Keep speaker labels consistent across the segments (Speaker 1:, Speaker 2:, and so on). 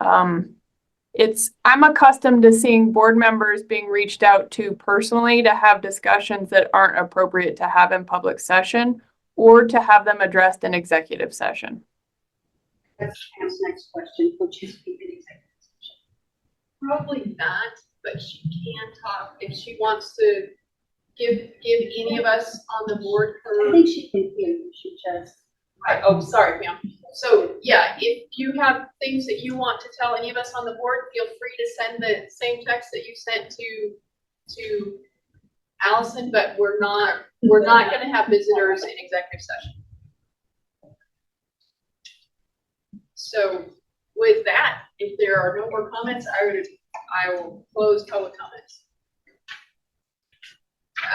Speaker 1: Um, it's, I'm accustomed to seeing board members being reached out to personally to have discussions that aren't appropriate to have in public session or to have them addressed in executive session.
Speaker 2: That's Pam's next question, will she speak in executive session?
Speaker 3: Probably not, but she can talk if she wants to give, give any of us on the board
Speaker 2: I
Speaker 3: her.
Speaker 2: think she can hear you, she just.
Speaker 3: Right, oh, sorry, Pam. So, yeah, if you have things that you want to tell any of us on the board, feel free to send the same text that you sent to, to Allison, but we're not, we're not gonna have visitors in executive session. So with that, if there are no more comments, I would, I will close public comments.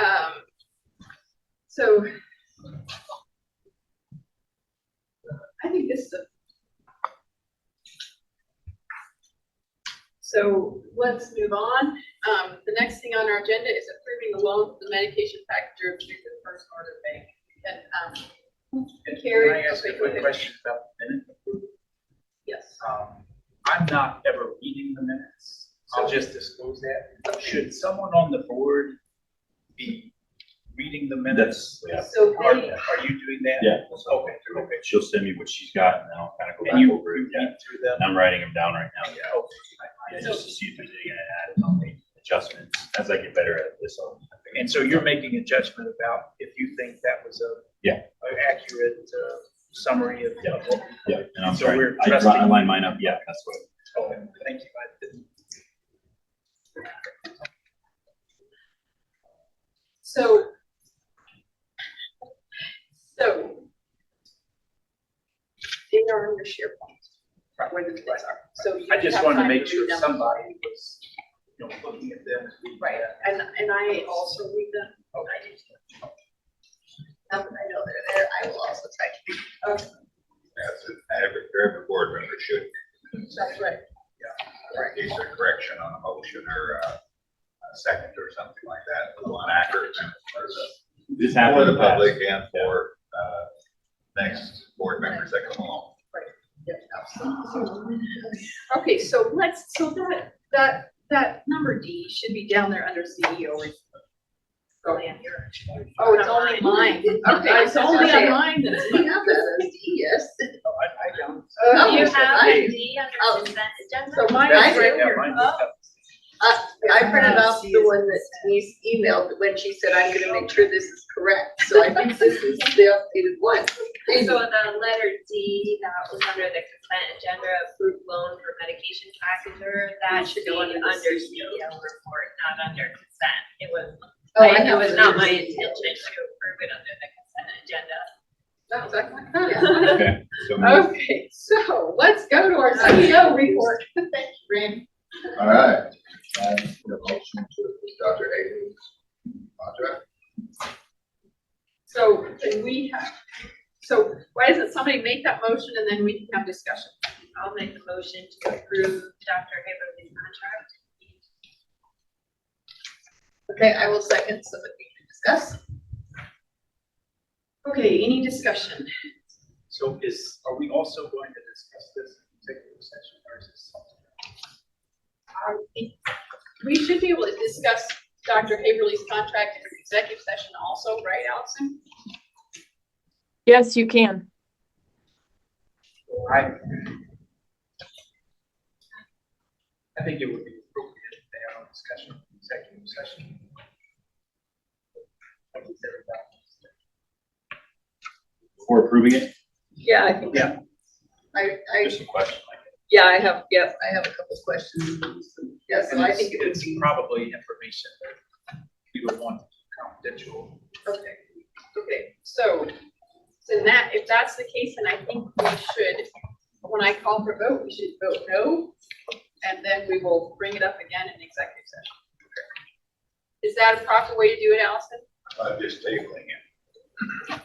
Speaker 3: Um, so I think this is a. So let's move on. Um, the next thing on our agenda is approving the loan for the medication factor of Truth and First Northern Bank. And, um, Carrie.
Speaker 4: Can I ask a quick question about the minutes?
Speaker 3: Yes.
Speaker 4: Um, I'm not ever reading the minutes. I'll just disclose that. Should someone on the board be reading the minutes?
Speaker 3: So
Speaker 4: Are, are
Speaker 3: they,
Speaker 4: you doing that?
Speaker 5: Yeah.
Speaker 4: Okay, okay.
Speaker 5: She'll send me what she's got and I'll kind of go
Speaker 4: And you
Speaker 5: back
Speaker 4: read
Speaker 5: over it. Yeah.
Speaker 4: through them?
Speaker 5: And I'm writing them down right now.
Speaker 4: Okay.
Speaker 5: Yeah, just to see if there's any gonna add on the adjustments. As I get better at this, I'll.
Speaker 4: And so you're making a judgment about if you think that was a.
Speaker 5: Yeah.
Speaker 4: An accurate, uh, summary of. of what we-
Speaker 5: Yeah, and I'm
Speaker 4: So
Speaker 5: sorry.
Speaker 4: we're
Speaker 5: I dri- I
Speaker 4: trusting-
Speaker 5: line mine up. Yeah, that's what.
Speaker 4: Okay, thank you. I didn't-
Speaker 3: so. So. They are on your SharePoint, right where the minutes are, so. you
Speaker 4: I just
Speaker 3: have
Speaker 4: wanted to
Speaker 3: time
Speaker 4: make sure
Speaker 3: read them.
Speaker 4: somebody was, you know, looking at them.
Speaker 3: Right, and, and I also read them. I do too. Now that I know they're there, I will also try to.
Speaker 6: That's it. Every, every board member should,
Speaker 3: That's right.
Speaker 6: in case of correction on a motion or uh, a second or something like that, a little inaccurate. For the-
Speaker 5: This
Speaker 6: for
Speaker 5: happened. in
Speaker 6: the
Speaker 5: the past.
Speaker 6: public and for uh, next board members that come along.
Speaker 3: Okay, so let's, so that, that, that number D should be down there under E CEO. Oh, Oh, it's only mine. Okay, it's only on mine.
Speaker 2: We have that as D, yes.
Speaker 4: Oh, I, I don't.
Speaker 3: Oh,
Speaker 7: You
Speaker 4: yes,
Speaker 7: have
Speaker 4: I do.
Speaker 7: D
Speaker 2: Oh.
Speaker 7: under consent agenda?
Speaker 3: So mine
Speaker 4: That's
Speaker 3: is
Speaker 4: it,
Speaker 3: right
Speaker 4: yeah,
Speaker 3: here.
Speaker 4: mine is up.
Speaker 2: I printed off the one that Denise emailed when she said, I'm gonna make sure this is correct, so I think this is the updated one.
Speaker 7: So on the letter D, that was under the consent agenda, approved loan for medication factor, that should be
Speaker 2: go
Speaker 7: under
Speaker 2: under the
Speaker 7: CEO report, not under consent. It was,
Speaker 2: Oh,
Speaker 7: I-
Speaker 2: I
Speaker 7: it
Speaker 2: know
Speaker 7: was
Speaker 2: it's
Speaker 7: not
Speaker 2: under
Speaker 7: my
Speaker 2: CEO.
Speaker 7: intention to approve it under the consent agenda.
Speaker 3: That was like-
Speaker 2: Yeah.
Speaker 5: Okay. So moved.
Speaker 3: Okay, so let's go to our
Speaker 2: E
Speaker 3: CEO report. Randy.
Speaker 6: All right. And the motion to Dr. Hayden's contract.
Speaker 3: So can we have, so why doesn't somebody make that motion and then we can have discussion?
Speaker 7: I'll make the motion to approve Dr. Haverly's contract.
Speaker 3: Okay, I will second so that we can discuss. Okay, any discussion?
Speaker 4: So is, are we also going to discuss this in executive session or is this something?
Speaker 3: I think Um, We should be able to discuss Dr. Haverly's contract in executive session also, right, Allison?
Speaker 1: Yes, you can.
Speaker 4: I. I think it would be appropriate to have a discussion, in executive session. What is everybody?
Speaker 5: Before approving it,
Speaker 2: Yeah, I think.
Speaker 4: Yeah.
Speaker 2: I, I,
Speaker 5: just a question like.
Speaker 2: yeah, I have, yeah, I have a couple of questions. Yeah, so
Speaker 4: And
Speaker 2: I
Speaker 4: it's-
Speaker 2: think it would
Speaker 4: It's
Speaker 2: be,
Speaker 4: probably information that you would want confidential.
Speaker 3: Okay, okay, so, then that, if that's the case, then I think we should, when I call for vote, we should vote no. And then we will bring it up again in executive session. Is that a proper way to do it, Allison?
Speaker 6: I'm just tabling it.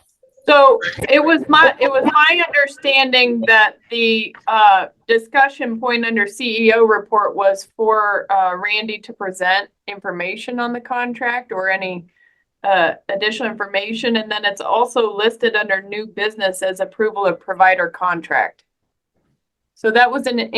Speaker 1: So it was my, it was my understanding that the, uh, discussion point under CEO report was for, uh, Randy to present information on the contract or any, uh, additional information. And then it's also listed under new business as approval of provider contract. So that was an